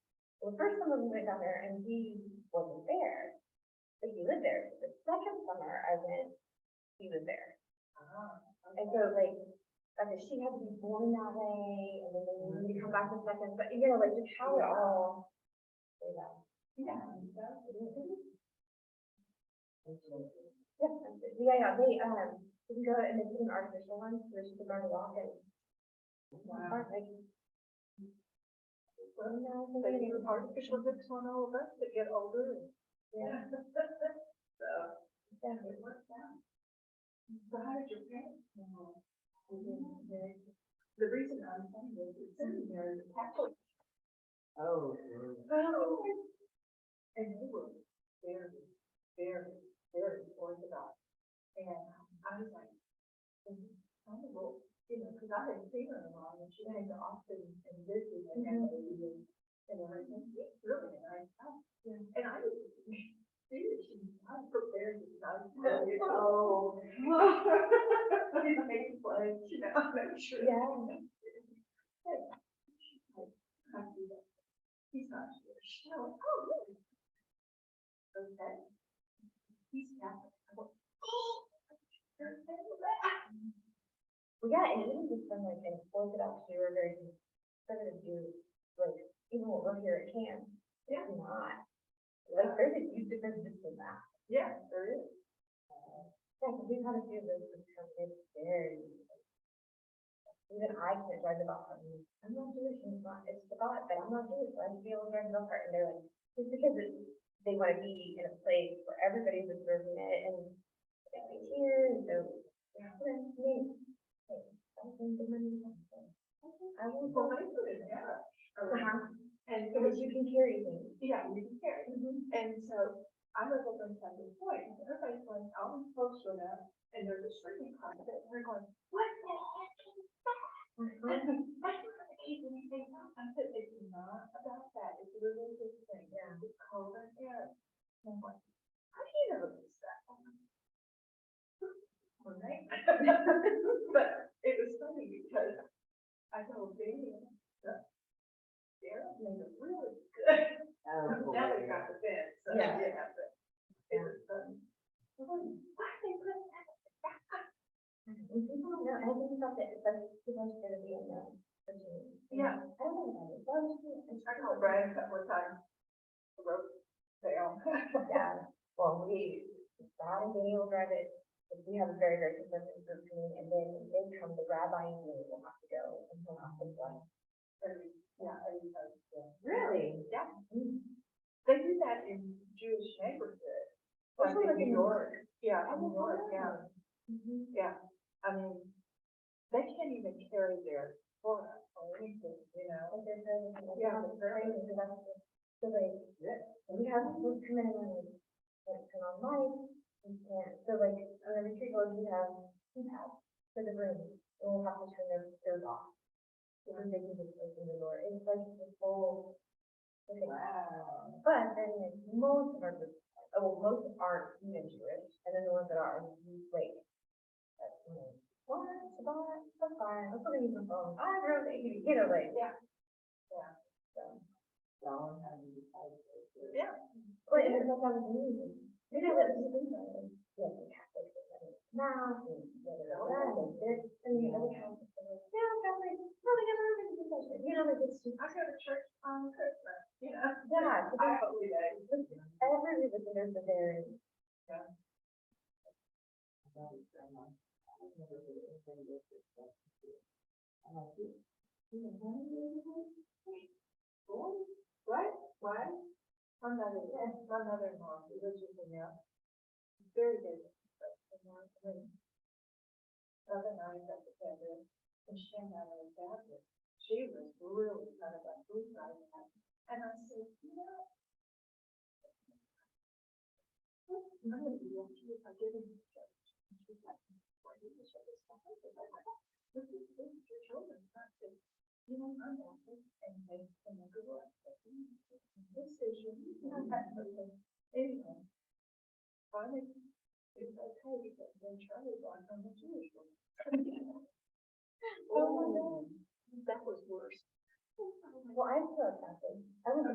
the first summer we went down there and he wasn't there, but he lived there. The second summer I went, he was there. And so like, okay, she had to be born that way and then they needed to come back the second, but you know, like just how it all. played out. Yeah. Yeah, yeah, yeah, they, um, you can go and they did an artificial one, so she could learn to walk and. Wow. Like, So you were artificial hips on all of us that get older. and- Yeah. So. Yeah. It worked out. So how did your parents know? The reason I'm saying this is seminary is Catholic. Oh. Oh. And they were very, very, very orthodox. And I was like, "Mhm, I don't know, you know, because I hadn't seen her in a while, and she had to often and visit and have a meeting and everything. It's really a nice house. And I was, seriously, I was prepared to not tell you, oh. It made fun, you know, I'm sure. Yeah. Can't do that. He's not Jewish. And I went, oh, really? Okay. He's Catholic. I went, oh. you're Catholic." Well, yeah, and even just from like an Orthodox Jew or very conservative Jew, like even what we're here at camp, Yeah. it's not. Like there's a huge difference just in that. Yeah, there is. Yeah, 'cause we've had a few of those that come in very. like, Even I can't drive the golf cart. and I'm not Jewish and it's not, it's the God, but I'm not Jewish, so I should be able to drive the golf cart. And they're like, just because it's, they want to be in a place where everybody's observing it and it's here and so. Yeah. I mean, like, I think the money. I will Well, go. they put an arrow around. Uh-huh. And it Because was, you can carry things. yeah, you can hear it. And so I was over in Sunday point, and everybody's going, all these folks were there, and there's a shrinking closet, and we're going, what the heck is that? Uh-huh. And I don't know if it's anything else. I said, it's not about that, it's a religious thing, Yeah. it's called an error. And I'm like, how do you know this stuff? All right. But it was funny because I told Daniel, that Darren made it really good. oh. Now they got the bed, so Yeah. yeah, but it was funny. I'm going, Why they put that? And people don't know, and I think about that, it's like, people are gonna be unknown. Yeah. I don't know about it, well, it's. I called Brian a couple of times. I Wrote down. Yeah, well, we, Dad and Daniel drive it, but we have a very, very conservative group meeting, and then they come, the rabbi and me will have to go, and he'll have to go. Every, yeah, every time, yeah. Really? Yeah, Mm. they do that in Jewish neighborhoods. Like Especially in like New in- York. Yeah, Oh, in New York, yeah, Mhm. yeah. I mean, they can't even carry their Torah or anything, you know? Like there's a, like, Yeah. have a frame, and that's, it. so like, and we have, we come in and like, turn on lights, we can't, so like, on the retreat board, we have keypads for the room, and we'll have to turn those, those off. Because they can just open the door, it's like this whole, like, Wow. But then like, most of our, group- oh, well, most aren't even Jewish, and then the ones that are, like, that's, you know, what, Shabbat, that's fine, I'm still gonna use my phone, I don't know, you know, like. Yeah. Yeah. So, Yeah. but it's like, I'm amazing. You know, it's just, you know, the Catholics, like, mass, and, da, da, da, da, and this, and the other Catholics, are like, yeah, Catholic, really, I'm not gonna do that, you know, like, it's just, I go to church on Christmas, you know? yeah, it's I about- hope we do. every religion, there's a very Boy, what, why? My mother, yes, my mother-in-law, she lives with me now. She's Very good. but she's not great. The Other night, I got together, and she and I were together. She was really kind of like, who's not happy? And I said, you know. I'm gonna be lucky if I get in this church. And she's like, why do you show this stuff? I said, "Oh my God, This is, this is your children. And I said, you know, I'm happy and they, and they go like, this is your, I'm happy. Anyway. Finally, it's okay because then Charlie's like, I'm a Jewish woman. Oh my Oh That was worse. Well, I feel like that. I was